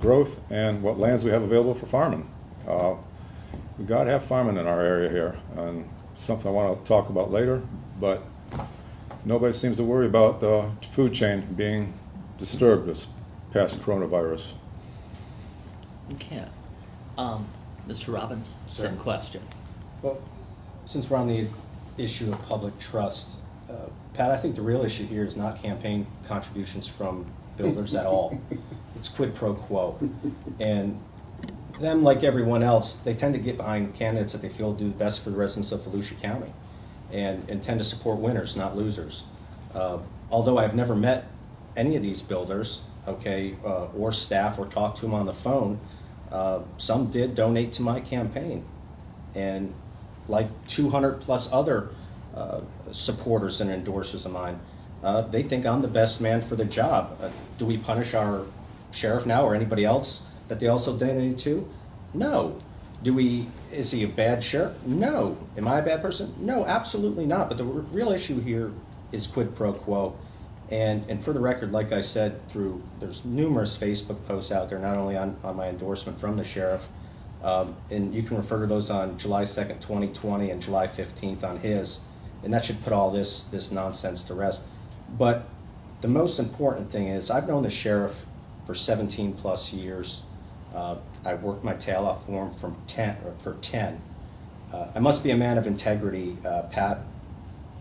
growth and what lands we have available for farming. Uh, We gotta have farming in our area here, and something I wanna talk about later, but nobody seems to worry about the food chain being disturbed this past coronavirus. Okay. Um, Mr. Robbins, same Sir. question. Well, since we're on the issue of public trust, uh, Pat, I think the real issue here is not campaign contributions from builders at all. It's quid pro quo. And them, like everyone else, they tend to get behind candidates that they feel do the best for the residents of Volusia County and, and tend to support winners, not losers. Uh, Although I've never met any of these builders, okay, uh, or staff, or talked to them on the phone, uh, some did donate to my campaign. And like 200-plus other uh, supporters and endorsers of mine, uh, they think I'm the best man for the job. Uh, Do we punish our sheriff now or anybody else that they also donated to? No. Do we, is he a bad sheriff? No. Am I a bad person? No, absolutely not. But the r- real issue here is quid pro quo. And, and for the record, like I said, through, there's numerous Facebook posts out there, not only on, on my endorsement from the sheriff, um, and you can refer to those on July second, twenty twenty, and July fifteenth on his, and that should put all this, this nonsense to rest. But the most important thing is, I've known the sheriff for seventeen-plus years. Uh, I worked my tail off for him from ten, or for ten. Uh, I must be a man of integrity, uh, Pat,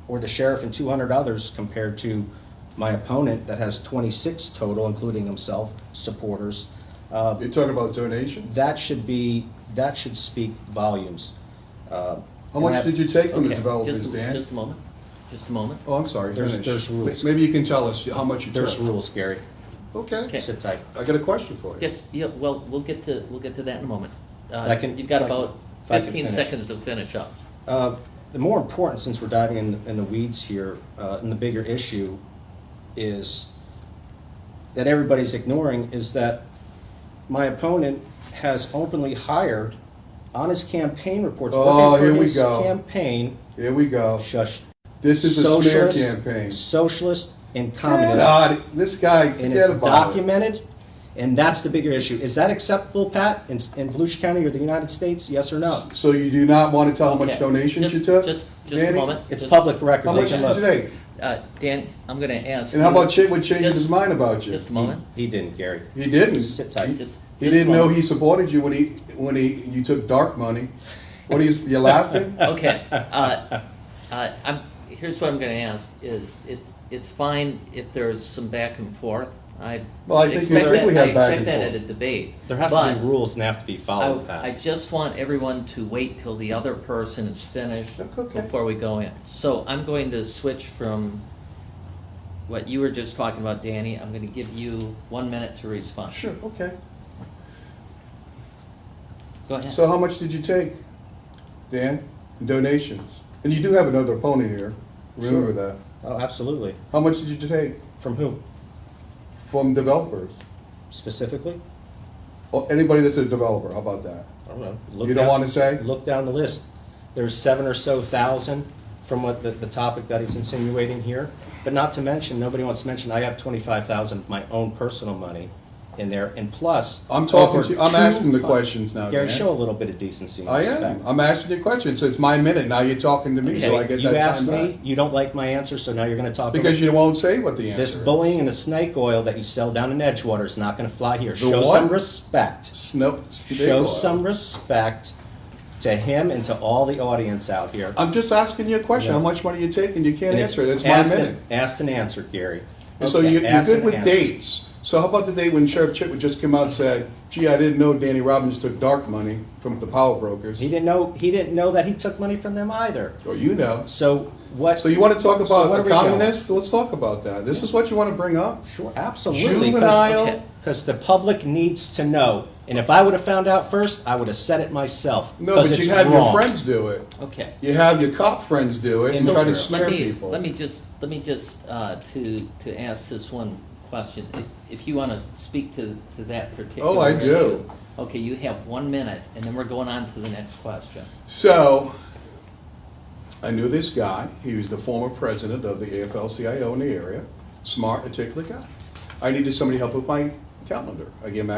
or the sheriff and two hundred others compared to my opponent that has twenty-six total, including himself, supporters. Uh, You're talking about donations? that should be, that should speak volumes. How much did you take from the Okay, developers, just- Dan? Just a moment, just a moment. Oh, I'm sorry, There's- finish. there's rules. Maybe you can tell us how much you took. There's rules, Gary. Okay, Okay. Sit tight. I got a question for you. Yes, yeah, well, we'll get to, we'll get to that in a moment. Uh, I can- You've got if I can- about if I can fifteen finish. seconds to finish up. Uh, The more important, since we're diving in, in the weeds here, uh, and the bigger issue is, that everybody's ignoring, is that my opponent has openly hired on his campaign reports, Oh, working here for we his go. campaign, Here we go. shush, This is a smear socialist, campaign. Socialist and Get communist. out of- This guy, and it's forget about it. documented, and that's the bigger issue. Is that acceptable, Pat, in, in Volusia County or the United States? Yes or no? So you do not want to tell how much Okay, donations you just- took? Just, just a Danny? moment. It's Just- public record. How They much can did you look. take? Uh, Dan, I'm gonna ask. And how you- about Chip, what changed just- his mind about you? Just a moment. Uh, He didn't, Gary. He didn't. Sit tight. He- Just- He just didn't know one. he supported you when he, when he, you took dark money. What are you, you laughing? Okay, uh, uh, I'm, here's what I'm gonna ask, is it, it's fine if there's some back and forth. I Well, I think- I expect think we that- have back I expect and that at forth. a debate. There has to but- be rules and they have to be followed, I, I Pat. just want everyone to wait till the other person is finished Okay. before we go in. So I'm going to switch from what you were just talking about, Danny. I'm going to give you one minute to respond. Sure, okay. Go ahead. So how much did you take, Dan? Donations? And you do have another opponent here, Sure. remember that. Oh, absolutely. How much did you take From whom from developers? specifically? Or anybody that's a developer, how about that? I don't know. Look You don't down- want to say? Look down the list. There's seven or so thousand from what the, the topic that he's insinuating here. But not to mention, nobody wants to mention, I have twenty-five thousand of my own personal money in there, and plus. I'm talking over to you, I'm two- asking the questions now, Gary, show a Dan. little bit of decency and I respect. am, I'm asking you questions, it's my minute, now you're talking to me, so I Okay, get that time You asked me, back. you don't like my answer, so now you're gonna talk. Because about you won't say what the answer is. This bullying and the snake oil that you sell down in Edgewater is not gonna fly here. Show what? some respect. Snow, snake Show oil. some respect to him and to all the audience out here. I'm just asking you a question, how Yeah. much money you take, and you can't And answer it, it's my asked minute. and- Asked and answered, Gary. And so Okay, you, you're asked good and with answered. dates. So how about the day when Sheriff Chitwood just came out and said, gee, I didn't know Danny Robbins took dark money from the power brokers? He didn't know, he didn't know that he took money from them either. Or you know. So what? So you want to talk So about what are a we doing? communist? Let's talk about that. This is what you want to bring up? Sure, absolutely. 'cause- Juvenile- Okay. Because the public needs to know. And if I would have found out first, I would have said it myself. No, 'cause but it's you have your wrong. friends do it. Okay. You have your cop friends do it and So try to let smear let me, people. Let me just let me just uh, to to ask this one question. If, if you want to speak to to that particular. Oh, I do. issue. Okay, you have one minute, and then we're going on to the next question. So I knew this guy. He was the former president of the AFL-CIO in the area. Smart, articulate guy. I needed somebody to help with my calendar. I gave him